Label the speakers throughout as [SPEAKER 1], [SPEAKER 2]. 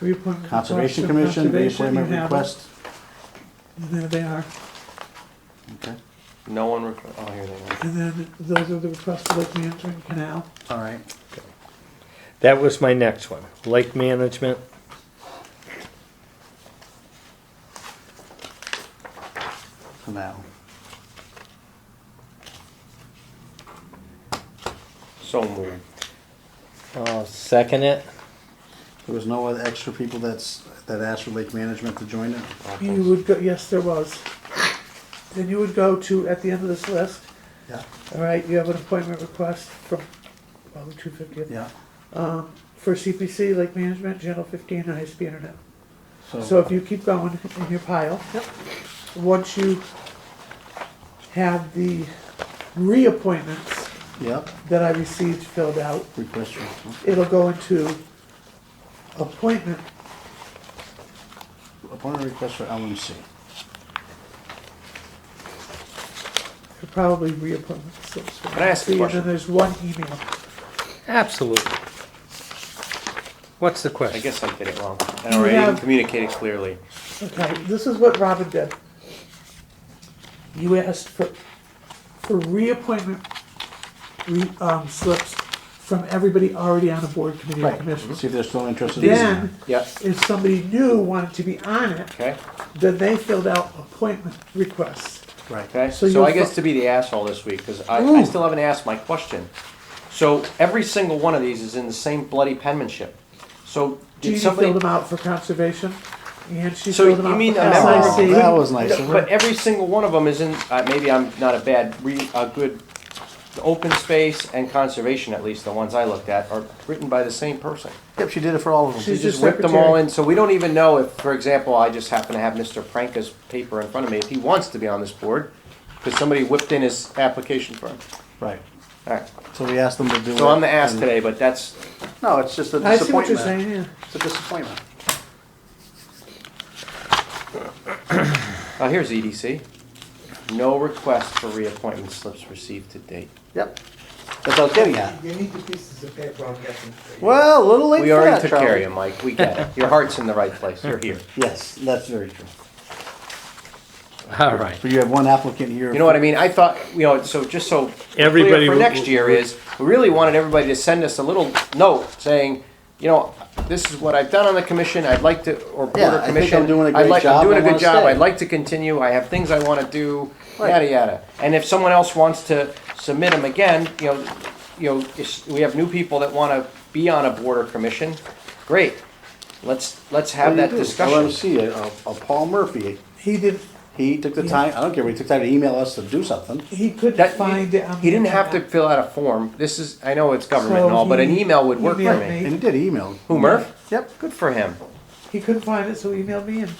[SPEAKER 1] Reappointment request
[SPEAKER 2] Conservation
[SPEAKER 1] from
[SPEAKER 2] Commission,
[SPEAKER 1] Conservation, you
[SPEAKER 2] reappointment
[SPEAKER 1] have it.
[SPEAKER 2] request.
[SPEAKER 1] And there they are.
[SPEAKER 2] Okay,
[SPEAKER 3] No one, requ- oh, here they are.
[SPEAKER 1] And then those are the requests for Lake Management Canal.
[SPEAKER 2] all right.
[SPEAKER 4] That was my next one, lake management.
[SPEAKER 2] For now.
[SPEAKER 3] So moved.
[SPEAKER 4] I'll second it.
[SPEAKER 2] There was no other extra people that's, that asked for Lake Management to join it?
[SPEAKER 1] You would go, yes, there was. Then you would go to, at the end of this list,
[SPEAKER 2] Yeah,
[SPEAKER 1] all right, you have an appointment request from, well, the two fiftieth.
[SPEAKER 2] yeah.
[SPEAKER 1] Um, for CPC, Lake Management, Channel fifteen, and ISP Internet. So
[SPEAKER 2] So,
[SPEAKER 1] if you keep going in your pile, once you have the reappointments
[SPEAKER 2] yeah,
[SPEAKER 1] that I received filled out,
[SPEAKER 2] request. your-
[SPEAKER 1] it'll go into appointment,
[SPEAKER 2] Appointment request for LMC.
[SPEAKER 1] probably reappointments. so it's-
[SPEAKER 3] Can I ask a
[SPEAKER 1] And then
[SPEAKER 3] question?
[SPEAKER 1] there's one email.
[SPEAKER 4] Absolutely. What's the question?
[SPEAKER 3] I guess I did it wrong. I
[SPEAKER 1] You
[SPEAKER 3] already didn't
[SPEAKER 1] have-
[SPEAKER 3] communicate it clearly.
[SPEAKER 1] Okay, this is what Robin did. You asked for, for reappointment, re, um, slips from everybody already on a board committee or
[SPEAKER 2] Right,
[SPEAKER 1] commission.
[SPEAKER 2] see if they're still
[SPEAKER 3] Mm-hmm.
[SPEAKER 2] interested. in it.
[SPEAKER 1] Then,
[SPEAKER 3] Yep.
[SPEAKER 1] if somebody new wanted to be on it,
[SPEAKER 3] Okay,
[SPEAKER 1] then they filled out appointment requests.
[SPEAKER 2] Right,
[SPEAKER 3] okay.
[SPEAKER 1] So
[SPEAKER 3] So I
[SPEAKER 1] you're
[SPEAKER 3] guess
[SPEAKER 1] fu-
[SPEAKER 3] to be the asshole this week, because I, I
[SPEAKER 1] Ooh.
[SPEAKER 3] still haven't asked my question. So every single one of these is in the same bloody penmanship. So
[SPEAKER 1] Jeannie
[SPEAKER 3] did somebody?
[SPEAKER 1] filled them out for conservation, and she
[SPEAKER 3] So
[SPEAKER 1] filled them
[SPEAKER 3] you
[SPEAKER 1] out
[SPEAKER 3] mean
[SPEAKER 1] for
[SPEAKER 3] a member of-
[SPEAKER 1] SIC.
[SPEAKER 2] That was nice of her.
[SPEAKER 3] But every single one of them is in, uh, maybe I'm not a bad, re, a good, the open space and conservation, at least the ones I looked at, are written by the same person.
[SPEAKER 2] yep, she did it for all of
[SPEAKER 3] She
[SPEAKER 2] them.
[SPEAKER 1] She's
[SPEAKER 3] just
[SPEAKER 1] your
[SPEAKER 3] whipped them all
[SPEAKER 1] secretary.
[SPEAKER 3] in, so we don't even know if, for example, I just happen to have Mr. Pranka's paper in front of me, if he wants to be on this board, because somebody whipped in his application for him.
[SPEAKER 2] Right,
[SPEAKER 3] Alright,
[SPEAKER 2] so we asked them to do it.
[SPEAKER 3] so I'm the ass
[SPEAKER 2] and-
[SPEAKER 3] today, but that's,
[SPEAKER 2] No, it's just a
[SPEAKER 1] I see what you're
[SPEAKER 2] disappointment.
[SPEAKER 1] saying, yeah.
[SPEAKER 2] It's a disappointment.
[SPEAKER 3] oh, here's EDC. No request for reappointment slips received to date.
[SPEAKER 2] Yep, that's what I was getting at.
[SPEAKER 5] You need the pieces of paper, I'm guessing.
[SPEAKER 2] Well, a little late
[SPEAKER 3] We
[SPEAKER 2] for
[SPEAKER 3] already
[SPEAKER 2] that,
[SPEAKER 3] took care of
[SPEAKER 2] Charlie.
[SPEAKER 3] you, Mike, we get it. Your heart's in the right place, you're here.
[SPEAKER 2] Yes, that's very true.
[SPEAKER 4] All right.
[SPEAKER 2] But you have one applicant here.
[SPEAKER 3] You know what I mean? I thought, you know, so just so we're clear
[SPEAKER 4] Everybody
[SPEAKER 3] for
[SPEAKER 4] w-
[SPEAKER 3] next year is we really wanted everybody to send us a little note saying, you know, this is what I've done on the commission. I'd like to, or board
[SPEAKER 2] Yeah, I
[SPEAKER 3] or
[SPEAKER 2] think I'm
[SPEAKER 3] commission.
[SPEAKER 2] doing a
[SPEAKER 3] I'd
[SPEAKER 2] great
[SPEAKER 3] like-
[SPEAKER 2] job.
[SPEAKER 3] I'm doing
[SPEAKER 2] I
[SPEAKER 3] a good
[SPEAKER 2] wanna
[SPEAKER 3] job.
[SPEAKER 2] stay."
[SPEAKER 3] I'd like to continue. I have things I want to do.
[SPEAKER 2] Right.
[SPEAKER 3] Yada yada. And if someone else wants to submit them again, you know, you know, it's- we have new people that want to be on a board or commission. Great. Let's let's have that discussion.
[SPEAKER 2] LMC, a, a uh, Paul Murphy,
[SPEAKER 1] He did,
[SPEAKER 2] he took the
[SPEAKER 1] Yeah.
[SPEAKER 2] time, I don't care, he took time to email us to do something.
[SPEAKER 1] he couldn't
[SPEAKER 3] That,
[SPEAKER 1] find it on.
[SPEAKER 3] he
[SPEAKER 1] the
[SPEAKER 3] didn't have to
[SPEAKER 1] internet.
[SPEAKER 3] fill out a form. This is, I know it's government
[SPEAKER 1] So
[SPEAKER 3] and all, but an
[SPEAKER 1] he
[SPEAKER 3] email would work for
[SPEAKER 1] emailed
[SPEAKER 3] me.
[SPEAKER 1] me.
[SPEAKER 2] And he did email.
[SPEAKER 3] Who, Murph?
[SPEAKER 2] Yep.
[SPEAKER 3] Good for him.
[SPEAKER 1] He couldn't find it, so he emailed me and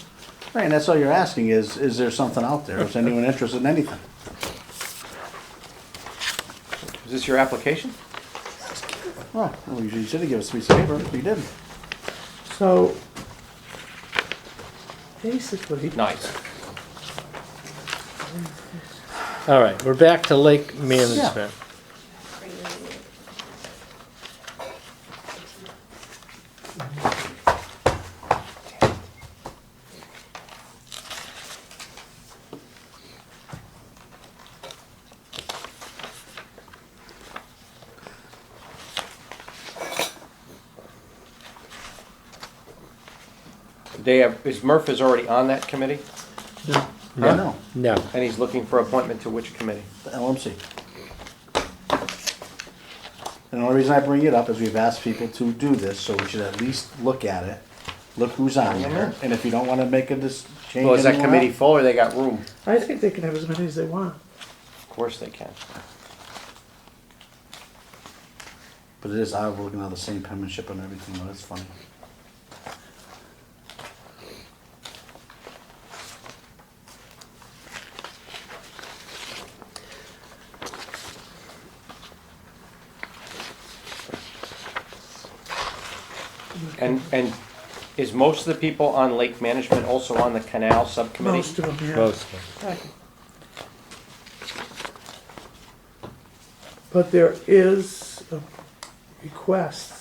[SPEAKER 2] Right, and that's all you're asking is, is there something out there? Is anyone interested in anything?
[SPEAKER 3] Is this your application?
[SPEAKER 2] Well, Oh, well, you should have given us a piece of paper, but you didn't.
[SPEAKER 1] So, basically,
[SPEAKER 3] Nice.
[SPEAKER 4] All right, we're back to lake management.
[SPEAKER 3] They have, is Murph is already on that committee,
[SPEAKER 2] No. No,
[SPEAKER 4] No,
[SPEAKER 3] and he's looking for appointment to which committee?
[SPEAKER 2] the LMC. And the only reason I bring it up is we've asked people to do this, so we should at least look at it. Look who's on there, and if you don't wanna make a dis- change.
[SPEAKER 3] Well, is that
[SPEAKER 2] anyone else-
[SPEAKER 3] committee full or they got room?
[SPEAKER 1] I think they can have as many as they want.
[SPEAKER 3] Of course they can.
[SPEAKER 2] But it is, I was looking on the same penmanship and everything, though, that's funny.
[SPEAKER 3] And, and is most of the people on lake management also on the canal subcommittee?
[SPEAKER 1] Most of them, yeah.
[SPEAKER 4] mostly.
[SPEAKER 1] But there is a request